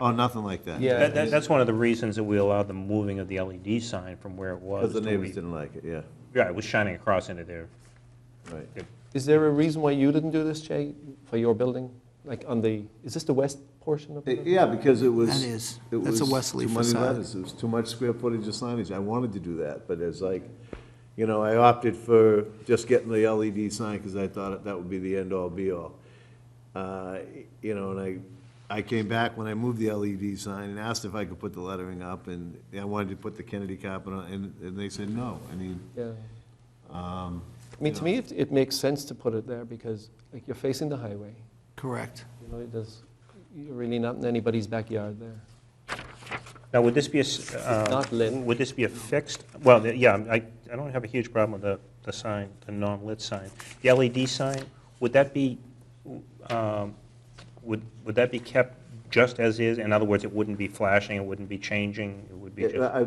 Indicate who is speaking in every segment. Speaker 1: Oh, nothing like that?
Speaker 2: Yeah.
Speaker 3: That, that- that's one of the reasons that we allowed the moving of the LED sign from where it was.
Speaker 1: Because the
Speaker 3: to
Speaker 1: neighbors
Speaker 3: we-
Speaker 1: didn't like it, yeah,
Speaker 3: Yeah, it was shining across into their,
Speaker 1: right.
Speaker 3: their
Speaker 2: Is there a reason why you didn't do this, Jay, for your building? Like on the, is this the west portion of the building?
Speaker 1: Yeah, because it was.
Speaker 4: That is-
Speaker 1: it
Speaker 4: that's a
Speaker 1: was
Speaker 4: Wesley
Speaker 1: too many
Speaker 4: facade.
Speaker 1: letters, It was too much square footage of signage. I wanted to do that, but it's like, you know, I opted for just getting the LED sign because I thought that would be the end-all, be-all. Uh, You know, and I, I came back when I moved the LED sign and asked if I could put the lettering up, and I wanted to put the Kennedy carpet on, and, and they said no. I mean,
Speaker 2: Yeah.
Speaker 1: Um,
Speaker 2: I mean, to me, it, it makes sense to put it there because like you're facing the highway.
Speaker 4: Correct.
Speaker 2: You know, it does, you're really not in anybody's backyard there.
Speaker 3: Now, would this be a, s- uh,
Speaker 2: not lit.
Speaker 3: would this be a fixed, well, the- yeah, I, I don't have a huge problem with the, the sign, the non-lit sign. The LED sign, would that be, um, would, would that be kept just as is? In other words, it wouldn't be flashing, it wouldn't be changing, it would be
Speaker 1: Yeah,
Speaker 3: just,
Speaker 1: I,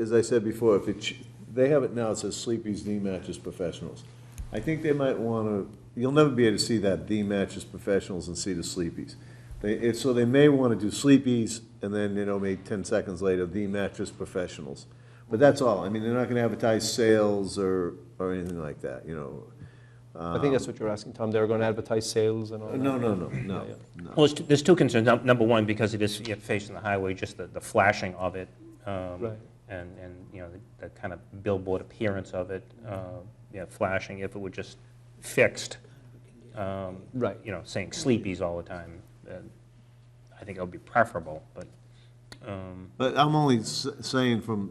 Speaker 1: as I said before, if it, ch- they have it now, it says Sleepy's The Mattress Professionals. I think they might wanna, you'll never be able to see that, The Mattress Professionals and see the Sleepy's. They, it, so they may wanna do Sleepy's, and then, you know, maybe ten seconds later, The Mattress Professionals. But that's all, I mean, they're not gonna advertise sales or, or anything like that, you know.
Speaker 2: I think that's what you're asking, Tom. They were going to advertise sales and all that.
Speaker 1: Uh, No, no, no, no, no.
Speaker 3: well, there's two- there's two concerns. Num- Number one, because it is yeah, facing the highway, just the, the flashing of it. um,
Speaker 2: Right.
Speaker 3: And, and, you know, the- the kind of billboard appearance of it, uh, yeah, flashing, if it were just fixed. um,
Speaker 2: Right.
Speaker 3: you know, saying sleepies all the time. uh, I think that would be preferable, but, um,
Speaker 1: But I'm only s- saying from,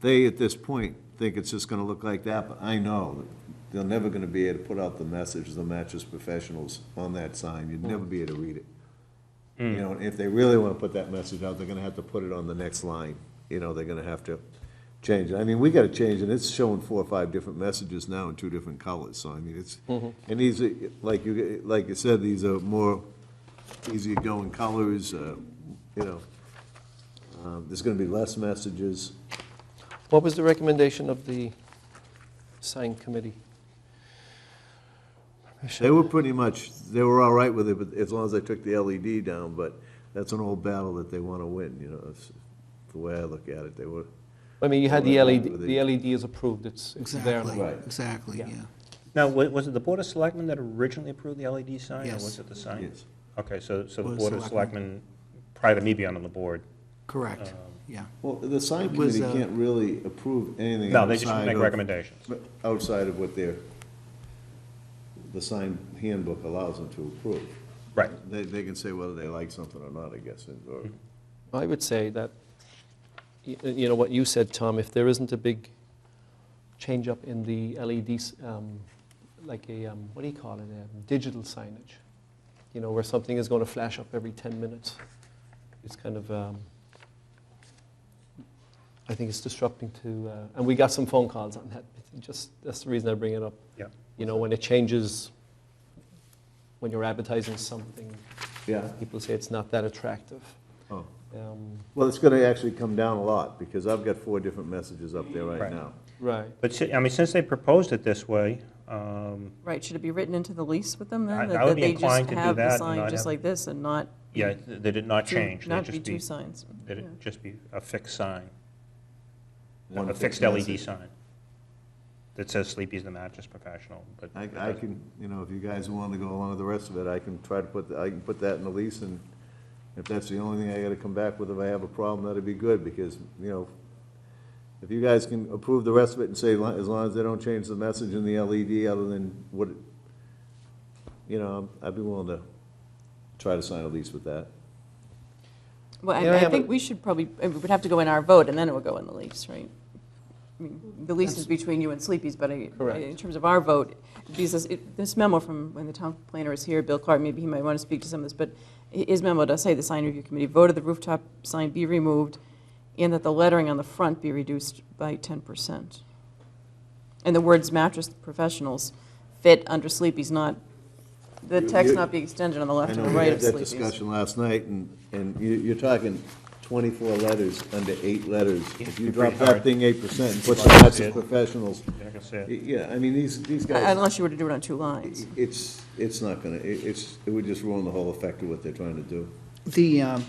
Speaker 1: they at this point think it's just gonna look like that, but I know that they're never gonna be able to put out the message, the mattress professionals on that sign, you'd never be able to read it. You know, and if they really wanna put that message out, they're gonna have to put it on the next line, you know, they're gonna have to change it. I mean, we gotta change it, it's showing four or five different messages now in two different colors, so I mean, it's, and these, are like you, like you said, these are more easygoing colors, uh, you know. Um, There's going to be less messages.
Speaker 2: What was the recommendation of the sign committee?
Speaker 1: They were pretty much, they were all right with it, but as long as I took the LED down, but that's an old battle that they want to win, you know, that's the way I look at it, they were.
Speaker 2: I mean, you had the
Speaker 1: Well, I-
Speaker 2: LED, the LED is approved, it's it's there.
Speaker 4: Exactly,
Speaker 1: Right.
Speaker 4: exactly,
Speaker 3: Yeah.
Speaker 4: yeah.
Speaker 3: now, wa- was it the Board of Selectmen that originally approved the LED sign? Or
Speaker 4: Yes.
Speaker 3: was it the sign?
Speaker 1: Yes.
Speaker 3: Okay, so, so the
Speaker 4: Board of
Speaker 3: Board of Selectmen, prior to me being on the board,
Speaker 4: Correct, yeah.
Speaker 1: Well, the sign
Speaker 4: It was,
Speaker 1: committee
Speaker 4: uh,
Speaker 1: can't really approve anything outside
Speaker 3: no, they just make
Speaker 1: of-
Speaker 3: recommendations.
Speaker 1: Outside of what their, the sign handbook allows them to approve.
Speaker 3: Right.
Speaker 1: They, they can say whether they like something or not, I guess, and- or,
Speaker 2: I would say that, y- uh, you know, what you said, Tom, if there isn't a big change-up in the LEDs, um, like a, um, what do you call it, a digital signage, you know, where something is going to flash up every 10 minutes, it's kind of, um, I think it's disrupting to, uh, and we got some phone calls on that, just, that's the reason I bring it up.
Speaker 3: Yeah.
Speaker 2: You know, when it changes, when you're advertising something,
Speaker 1: yeah.
Speaker 2: people say it's not that attractive.
Speaker 1: Oh.
Speaker 2: Um,
Speaker 1: Well, it's going to actually come down a lot, because I've got four different messages up there right
Speaker 3: Right.
Speaker 1: now.
Speaker 2: Right.
Speaker 3: But, si- I mean, since they proposed it this way, um,
Speaker 5: Right, should it be written into the lease with
Speaker 3: I-
Speaker 5: them then?
Speaker 3: I
Speaker 5: that-
Speaker 3: would
Speaker 5: that
Speaker 3: be
Speaker 5: they just
Speaker 3: inclined to do
Speaker 5: have the
Speaker 3: that and
Speaker 5: sign
Speaker 3: not have-
Speaker 5: Just like this and not.
Speaker 3: yeah, th-
Speaker 1: Mm.
Speaker 3: they did not
Speaker 5: two-
Speaker 3: change.
Speaker 5: Not
Speaker 3: They'd
Speaker 5: be
Speaker 3: just
Speaker 5: two signs.
Speaker 3: It'd just be a fixed sign,
Speaker 1: One
Speaker 3: a fixed
Speaker 1: message.
Speaker 3: LED sign that says Sleepy's the mattress professional, but.
Speaker 1: I, I can, you know, if you guys want to go along with the rest of it, I can try to put, the- I can put that in the lease, and if that's the only thing I gotta come back with, if I have a problem, that'd be good, because, you know, if you guys can approve the rest of it and say, li- as long as they don't change the message in the LED other than what, it- you know, I'd be willing to try to sign a lease with that.
Speaker 5: Well,
Speaker 2: You know, I
Speaker 5: I- I
Speaker 2: have
Speaker 5: think
Speaker 2: a-
Speaker 5: we should probably, uh, we would have to go in our vote and then it would go in the lease, right? I mean, The lease is between you and Sleepy's, but I-
Speaker 2: Correct.
Speaker 5: in terms of our vote, because it- this memo from, when the town planner is here, Bill Clark, maybe he might want to speak to some of this, but hi- his memo does say the sign review committee voted the rooftop sign be removed and that the lettering on the front be reduced by 10%. And the words mattress professionals fit under Sleepy's, not, the
Speaker 1: You-
Speaker 5: text
Speaker 1: you-
Speaker 5: not be extended on the
Speaker 1: I
Speaker 5: left
Speaker 1: know
Speaker 5: and the
Speaker 1: we
Speaker 5: right
Speaker 1: had
Speaker 5: of
Speaker 1: that
Speaker 5: Sleepy's.
Speaker 1: discussion last night, and, and you, you're talking twenty-four letters under eight letters. If you
Speaker 3: You're
Speaker 1: drop
Speaker 3: pretty
Speaker 1: that
Speaker 3: hard.
Speaker 1: thing eight percent and put
Speaker 3: Like
Speaker 1: the
Speaker 3: I
Speaker 1: mattress
Speaker 3: said.
Speaker 1: professionals,
Speaker 3: Like I said.
Speaker 1: Yeah, I mean, these, these guys,
Speaker 5: Unless you were to do it on two lines.
Speaker 1: it's, it's not gonna, it- it's, it would just ruin the whole effect of what they're trying to do.
Speaker 4: The, um,